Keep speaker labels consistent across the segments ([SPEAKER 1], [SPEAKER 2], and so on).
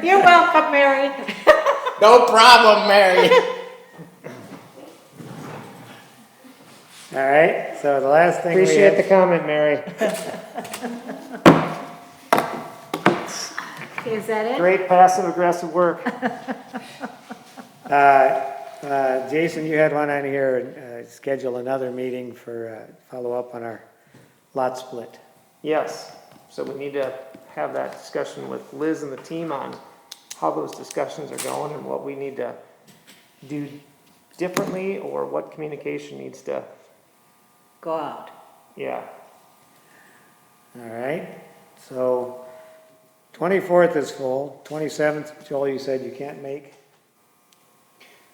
[SPEAKER 1] You're welcome, Mary.
[SPEAKER 2] No problem, Mary.
[SPEAKER 3] All right, so the last thing we
[SPEAKER 4] Appreciate the
[SPEAKER 3] had,
[SPEAKER 4] comment, Mary.
[SPEAKER 1] Is that it?
[SPEAKER 4] Great passive aggressive work.
[SPEAKER 3] uh, uh, Jason, you had one on here, uh, schedule another meeting for, uh, follow up on our lot split.
[SPEAKER 4] Yes, so we need to have that discussion with Liz and the team on how those discussions are going and what we need to do differently or what communication needs to,
[SPEAKER 1] Go out.
[SPEAKER 4] yeah.
[SPEAKER 3] All right, so twenty-fourth is full, twenty-seventh, Joel, you said you can't make.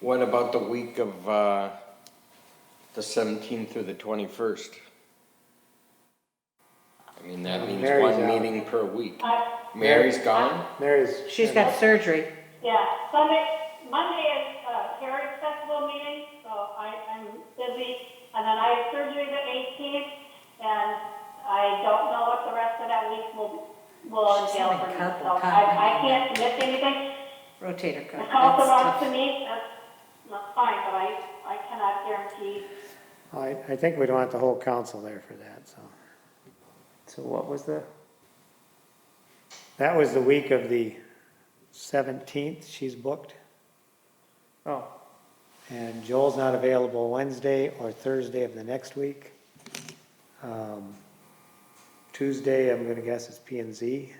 [SPEAKER 2] What about the week of, uh, the seventeenth through the twenty-first? I mean, that means
[SPEAKER 3] Mary's
[SPEAKER 2] one
[SPEAKER 3] out.
[SPEAKER 2] meeting per week. Mary's gone?
[SPEAKER 3] Mary's.
[SPEAKER 1] She's got surgery.
[SPEAKER 5] Yeah, Sunday, Monday is uh, Heritage Festival meeting, so I, I'm busy. And then I have surgery the 18th, and I don't know what the rest of that week will, will
[SPEAKER 1] She's
[SPEAKER 5] entail for
[SPEAKER 1] having
[SPEAKER 5] me.
[SPEAKER 1] couple
[SPEAKER 5] So I,
[SPEAKER 1] time.
[SPEAKER 5] I can't commit to anything.
[SPEAKER 1] Rotator
[SPEAKER 5] The
[SPEAKER 1] cuff.
[SPEAKER 5] council
[SPEAKER 1] That's
[SPEAKER 5] wants to
[SPEAKER 1] tough.
[SPEAKER 5] meet, that's, that's fine, but I, I cannot guarantee.
[SPEAKER 3] I, I think we'd want the whole council there for that, so.
[SPEAKER 4] So what was the,
[SPEAKER 3] That was the week of the seventeenth, she's booked,
[SPEAKER 4] oh,
[SPEAKER 3] and Joel's not available Wednesday or Thursday of the next week. Um, Tuesday, I'm gonna guess it's P and Z.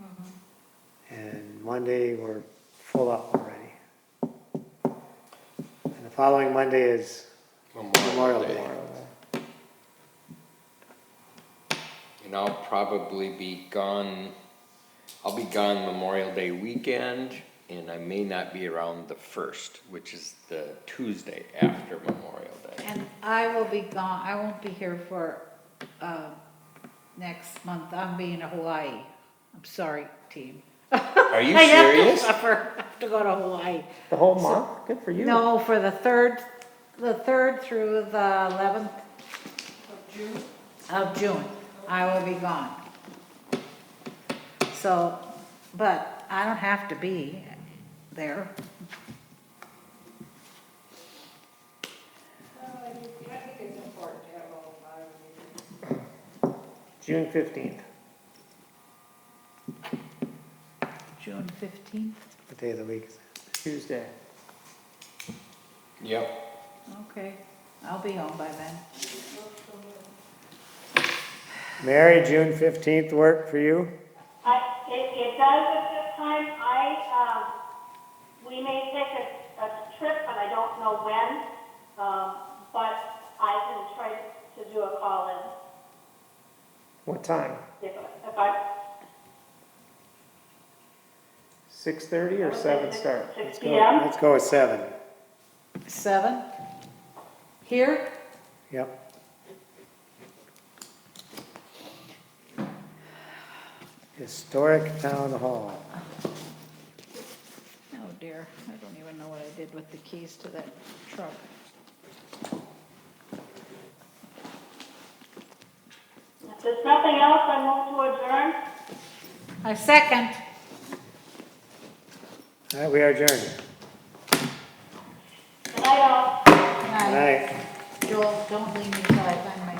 [SPEAKER 3] Mm-hmm. And Monday, we're full up already. And the following Monday is Memorial Day.
[SPEAKER 2] And I'll probably be gone, I'll be gone Memorial Day weekend, and I may not be around the first, which is the Tuesday after Memorial Day.
[SPEAKER 6] And I will be gone, I won't be here for, uh, next month, I'm being to Hawaii. I'm sorry, team.
[SPEAKER 2] Are you
[SPEAKER 6] I have to
[SPEAKER 2] serious?
[SPEAKER 6] suffer. I have to go to Hawaii.
[SPEAKER 4] the whole month? Good for you.
[SPEAKER 6] No, for the third, the third through the eleventh. Of June. Of June, I will be gone. So, but I don't have to be there.
[SPEAKER 4] June 15th.
[SPEAKER 6] June fifteenth,
[SPEAKER 3] What day of the week is
[SPEAKER 4] Tuesday.
[SPEAKER 2] Yep,
[SPEAKER 6] okay, I'll be home by then.
[SPEAKER 3] that? Mary, June fifteenth work for you?
[SPEAKER 5] I, it, it does at this time, I, um, we may take a, a trip, but I don't know when, um, but I can try to do a call in
[SPEAKER 4] What time?
[SPEAKER 5] if, if I.
[SPEAKER 4] 6:30 or 7 start?
[SPEAKER 5] Six
[SPEAKER 3] Go-
[SPEAKER 5] P M,
[SPEAKER 3] Let's go with seven,
[SPEAKER 6] Seven? Here?
[SPEAKER 3] yep. Historic Town Hall.
[SPEAKER 6] Oh dear, I don't even know what I did with the keys to that truck.
[SPEAKER 5] if there's nothing else, I move to adjourn.
[SPEAKER 6] I second.
[SPEAKER 3] All right, we are adjourned.
[SPEAKER 5] Good night, all.
[SPEAKER 6] And
[SPEAKER 3] Good
[SPEAKER 6] I-
[SPEAKER 3] night.
[SPEAKER 6] Joel, don't leave me till I find my